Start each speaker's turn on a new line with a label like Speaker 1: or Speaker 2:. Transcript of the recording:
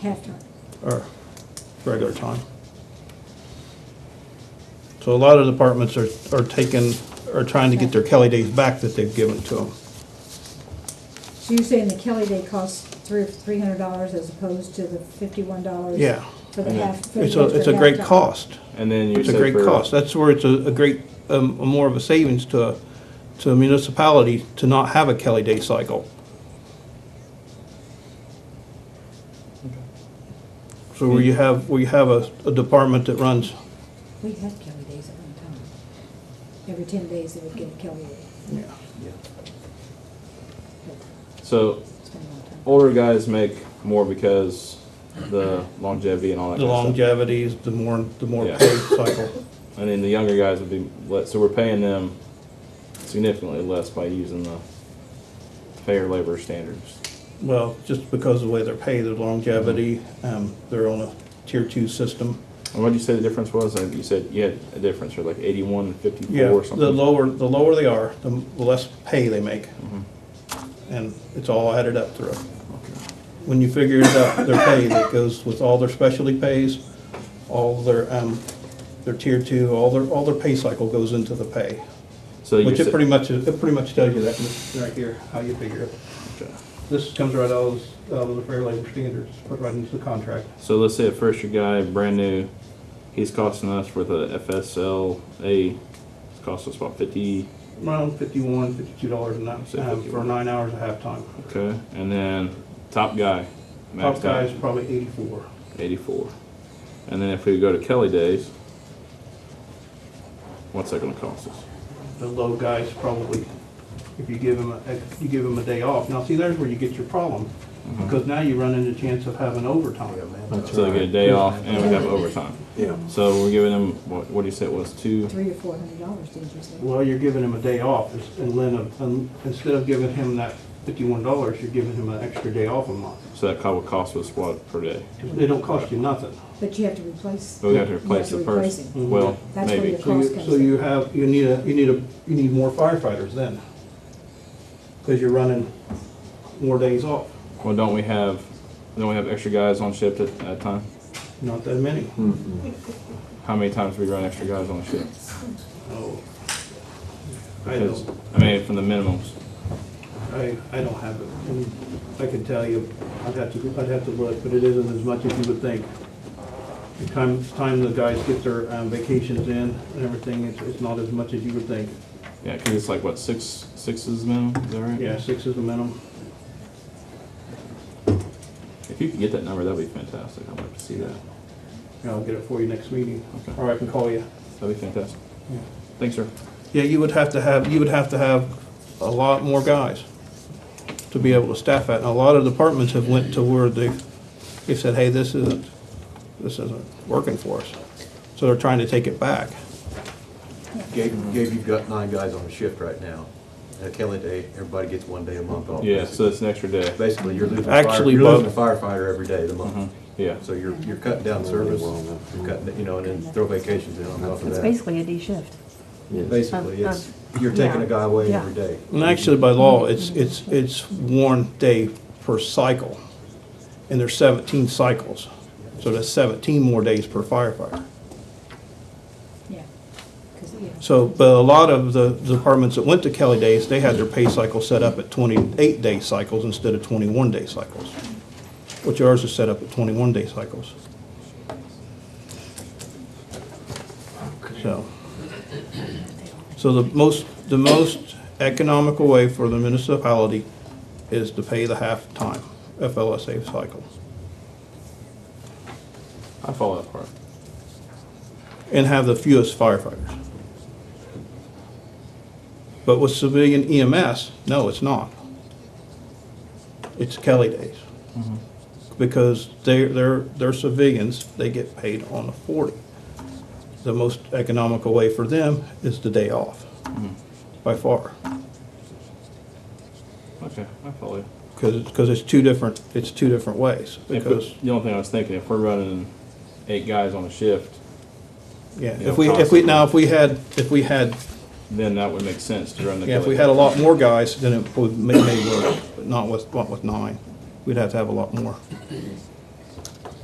Speaker 1: halftime.
Speaker 2: or regular time. So a lot of departments are, are taking, are trying to get their Kelly days back that they've given to them.
Speaker 1: So you're saying the Kelly Day costs three, three hundred dollars as opposed to the fifty-one dollars?
Speaker 2: Yeah.
Speaker 1: For the
Speaker 3: And
Speaker 1: half. for the
Speaker 2: It's a, it's a
Speaker 1: extra
Speaker 2: great
Speaker 1: halftime.
Speaker 2: cost.
Speaker 3: And then you
Speaker 2: It's a
Speaker 3: said
Speaker 2: great
Speaker 3: for-
Speaker 2: cost. That's where it's a, a great, um, more of a savings to, a- to a municipality to not have a Kelly day cycle. So where you have, where you have a, a department that runs,
Speaker 1: We had Kelly Days at one time. Every ten days they would get a Kelly Day.
Speaker 2: yeah,
Speaker 3: So
Speaker 1: It's been a long time.
Speaker 3: older guys make more because the longevity and all that.
Speaker 2: the
Speaker 3: kind of stuff.
Speaker 2: longevities, the more, the more
Speaker 3: Yeah.
Speaker 2: paid cycle.
Speaker 3: And then the younger guys would be let. So we're paying them significantly less by using the fair labor standards.
Speaker 2: Well, just because of the way they're paid, their longevity, um, they're on a tier two system.
Speaker 3: And what did you say the difference was? Like you said you had a difference, or like eighty-one and fifty-four
Speaker 2: Yeah,
Speaker 3: or
Speaker 2: the
Speaker 3: something.
Speaker 2: lower, the lower they are, the m- the less pay they make.
Speaker 3: Mm-hmm.
Speaker 2: And it's all added up through. When you figure it out, their pay that goes with all their specialty pays, all their, um, their tier two, all their, all their pay cycle goes into the pay.
Speaker 3: so you
Speaker 2: Which it
Speaker 3: said-
Speaker 2: pretty much, it pretty much tells you that right here, how you figure it.
Speaker 3: Okay.
Speaker 2: This comes right out of, out of the Fair Labor Standards, put right into the contract.
Speaker 3: So let's say at first your guy brand new, he's costing us with a FSLA, it's costing us about fifty.
Speaker 2: Around fifty-one, fifty-two dollars a night,
Speaker 3: Say
Speaker 2: um, for
Speaker 3: 51.
Speaker 2: nine hours of halftime.
Speaker 3: Okay, and then top guy, maxed
Speaker 2: Top
Speaker 3: out,
Speaker 2: guy's probably eighty-four.
Speaker 3: eighty-four, and then if we go to Kelly Days, what's that gonna cost us?
Speaker 2: The low guy's probably, if you give him, a if you give him a day off. Now, see, there's where you get your problem, because now you run into chance of having overtime.
Speaker 3: So they get a day off and we have overtime.
Speaker 4: Yeah.
Speaker 3: So we're giving them what? What do you say it was two?
Speaker 1: Three or four hundred dollars, did you say?
Speaker 2: Well, you're giving him a day off, and then, uh, and instead of giving him that fifty-one dollars, you're giving him an extra day off a month.
Speaker 3: So that co- would cost us what per day?
Speaker 2: They don't cost you nothing.
Speaker 1: But you have to replace,
Speaker 3: But
Speaker 2: Oh,
Speaker 3: we have to
Speaker 1: You have
Speaker 3: replace
Speaker 1: to
Speaker 3: the
Speaker 1: replace
Speaker 3: first.
Speaker 2: him.
Speaker 3: Well,
Speaker 1: That's where
Speaker 3: maybe.
Speaker 1: you're-
Speaker 2: So
Speaker 1: Cost
Speaker 2: you,
Speaker 1: comes
Speaker 2: so you have, you need a, you need a, you need more firefighters then, because you're running more days off,
Speaker 3: Well, don't we have? Don't we have extra guys on shift at that time?
Speaker 2: not that many.
Speaker 3: How many times do we run extra guys on shift?
Speaker 2: Oh, I
Speaker 3: Because,
Speaker 2: don't,
Speaker 3: I mean, from the minimums.
Speaker 2: I, I don't have it. And I can tell you, I'd have to, I'd have to look, but it isn't as much as you would think. The time, time the guys get their um, vacations in and everything, it's, it's not as much as you would think.
Speaker 3: Yeah, because it's like, what, six, six is the minimum, is that right?
Speaker 2: Yeah, six is the minimum.
Speaker 3: If you could get that number, that'd be fantastic. I'd like to see that.
Speaker 2: And I'll get it for you next meeting,
Speaker 3: Okay.
Speaker 2: or I can call you.
Speaker 3: That'd be fantastic.
Speaker 2: Yeah.
Speaker 3: Thanks, sir.
Speaker 2: Yeah, you would have to have, you would have to have a lot more guys to be able to staff at. And a lot of departments have went to where they, they said, hey, this isn't, this isn't working for us. So they're trying to take it back.
Speaker 4: Gabe, Gabe, you've got nine guys on a shift right now. At Kelly Day, everybody gets one day a month off.
Speaker 3: Yeah, so it's an extra day.
Speaker 4: Basically, you're losing a fire,
Speaker 2: Actually,
Speaker 4: you're losing a
Speaker 2: both.
Speaker 4: firefighter every day of the month.
Speaker 3: Mm-hmm. Yeah,
Speaker 4: So you're, you're cutting down service, you're cutting, you know, and then throw vacations in on top of
Speaker 5: It's
Speaker 4: that.
Speaker 5: basically a D shift.
Speaker 4: Basically, it's, you're taking a guy away every day.
Speaker 2: And actually, by law, it's, it's, it's one day per cycle. And there's 17 cycles. So that's 17 more days per firefighter.
Speaker 1: yeah. 'Cause, yeah.
Speaker 2: So, but a lot of the departments that went to Kelly Days, they had their pay cycle set up at twenty-eight day cycles instead of twenty-one day cycles. Which ours is set up at twenty-one day cycles. So. So the most, the most economical way for the municipality is to pay the half-time FLSA cycle.
Speaker 3: I follow that part.
Speaker 2: and have the fewest firefighters. But with civilian EMS, no, it's not. It's Kelly days. Because they're, they're, they're civilians, they get paid on a forty. The most economical way for them is the day off, by far.
Speaker 3: Okay, I follow you.
Speaker 2: Because, because it's two different, it's two different ways,
Speaker 3: If
Speaker 2: because.
Speaker 3: we- The only thing I was thinking, if we're running eight guys on a shift,
Speaker 2: Yeah,
Speaker 3: you know,
Speaker 2: if we, if we, now, if we had, if we had,
Speaker 3: then that would make sense to run the.
Speaker 2: yeah, if we had
Speaker 3: Kelly-
Speaker 2: a lot more guys, then it would may, may work, but not with, not with nine. We'd have to have a lot more.